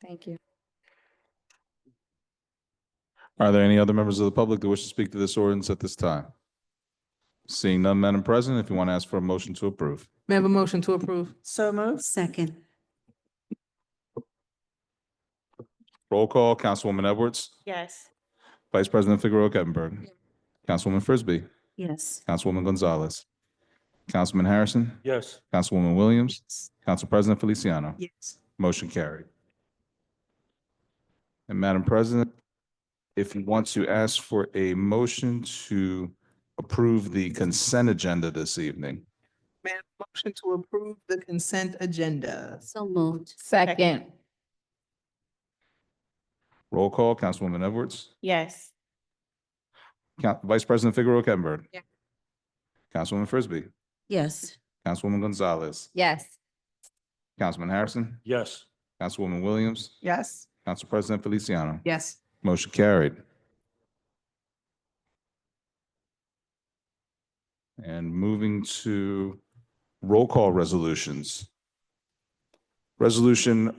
Thank you. Are there any other members of the public that wish to speak to this ordinance at this time? Seeing none, Madam President, if you want to ask for a motion to approve. May I have a motion to approve? So moved. Second. Roll call, Councilwoman Edwards, Yes. Vice President Figueroa Kettner. Councilwoman Frisbee, Yes. Councilwoman Gonzalez, Councilman Harrison, yes, Councilwoman Williams, Council President Feliciano. Yes. Motion carried. And Madam President, if you want to ask for a motion to approve the consent agenda this evening. May I have a motion to approve the consent agenda? So moved. Second, Roll call, Councilwoman Edwards, Yes. Coun- Vice President Figueroa Kettner. Yeah. Councilwoman Frisbee, Yes. Councilwoman Gonzalez, yes. Councilman Harrison, yes, Councilwoman Williams, Yes? Council President Feliciano. Yes. Motion carried. And moving to roll call resolutions. Resolution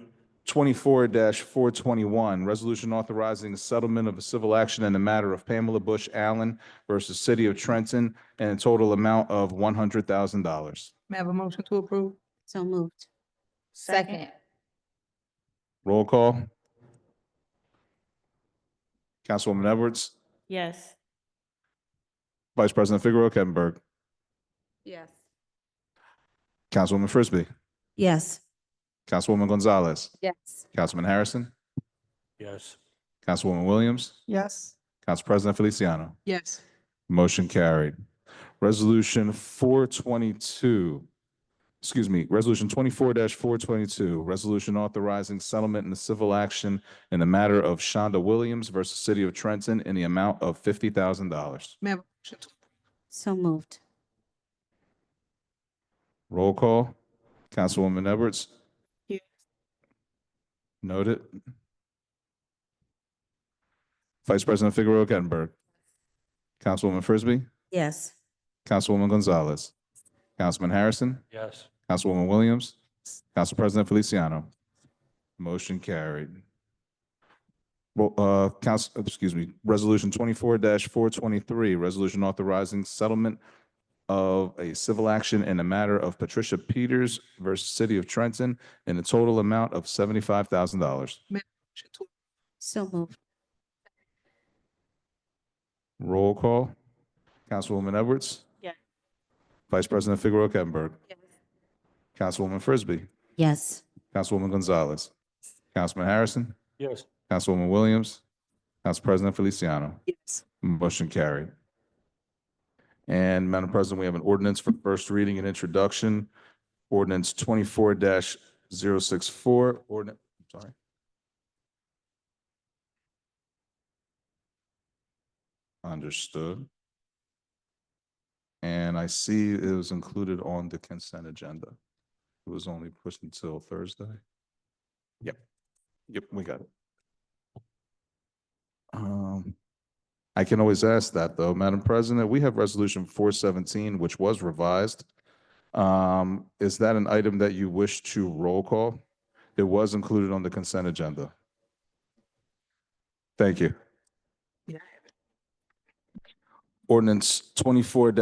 twenty-four four twenty-one, resolution authorizing settlement of a civil action in the matter of Pamela Bush Allen versus City of Trenton and a total amount of one hundred thousand dollars. May I have a motion to approve? So moved. Second, Roll call. Councilwoman Edwards, Yes. Vice President Figueroa Kettner, yes. Councilwoman Frisbee. Yes. Councilwoman Gonzalez, Yes. Councilman Harrison, yes, Councilwoman Williams, Yes? Council President Feliciano. Yes. Motion carried. Resolution four twenty-two, excuse me, Resolution twenty-four four twenty-two, resolution authorizing settlement in the civil action in the matter of Shonda Williams versus City of Trenton in the amount of fifty thousand dollars. May I have a motion to, So moved. Roll call, Councilwoman Edwards. Here. Noted. Vice President Figueroa Kettner. Councilwoman Frisbee, Yes. Councilwoman Gonzalez, Councilman Harrison, yes, Councilwoman Williams, Council President Feliciano. Motion carried. Well, uh, council, excuse me, resolution twenty-four four twenty-three, resolution authorizing settlement of a civil action in a matter of Patricia Peters versus City of Trenton in a total amount of seventy-five thousand dollars. motion to- So moved. Roll call. Councilwoman Edwards. Yes. Vice President Figueroa Kettner. Yes. Councilwoman Frisbee. Yes. Councilwoman Gonzalez. Councilman Harrison. yes, Councilwoman Williams. Council President Feliciano. Yes. Motion carried. And Madam President, we have an ordinance for first reading and introduction. Ordinance twenty-four 64 ordinance, sorry. Understood. And I see it was included on the consent agenda. It was only pushed until Thursday. Yep. Yep, we got it. Um, I can always ask that, though, Madam President. We have Resolution four seventeen, which was revised. Um, is that an item that you wish to roll call? It was included on the consent agenda. Thank you. Yeah. Ordinance twenty-four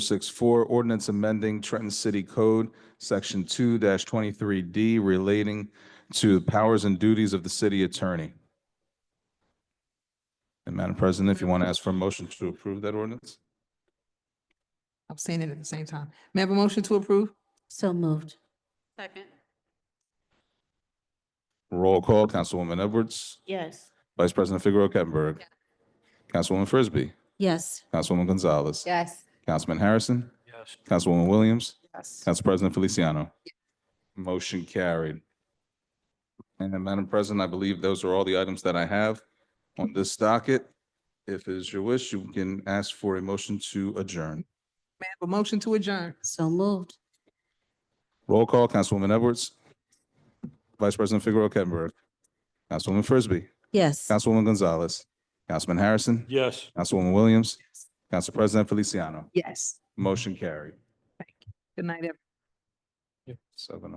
64 ordinance amending Trenton City Code, Section two twenty-three D relating to powers and duties of the city attorney. And Madam President, if you want to ask for a motion to approve that ordinance? I'm saying it at the same time. May I have a motion to approve? So moved. Second. Roll call, Councilwoman Edwards, Yes. Vice President Figueroa Kettner, Councilwoman Frisbee, Yes. Councilwoman Gonzalez, Yes. Councilman Harrison, yes, Councilwoman Williams, Yes. Council President Feliciano. Motion carried. And then, Madam President, I believe those are all the items that I have on this docket. If it is your wish, you can ask for a motion to adjourn. May I have a motion to adjourn? So moved. Roll call, Councilwoman Edwards, Vice President Figueroa Kettner, Councilwoman Frisbee, Yes. Councilwoman Gonzalez, Councilman Harrison, yes. Councilwoman Williams, Council President Feliciano. Yes. Motion carried. Good night, everyone. Seven oh.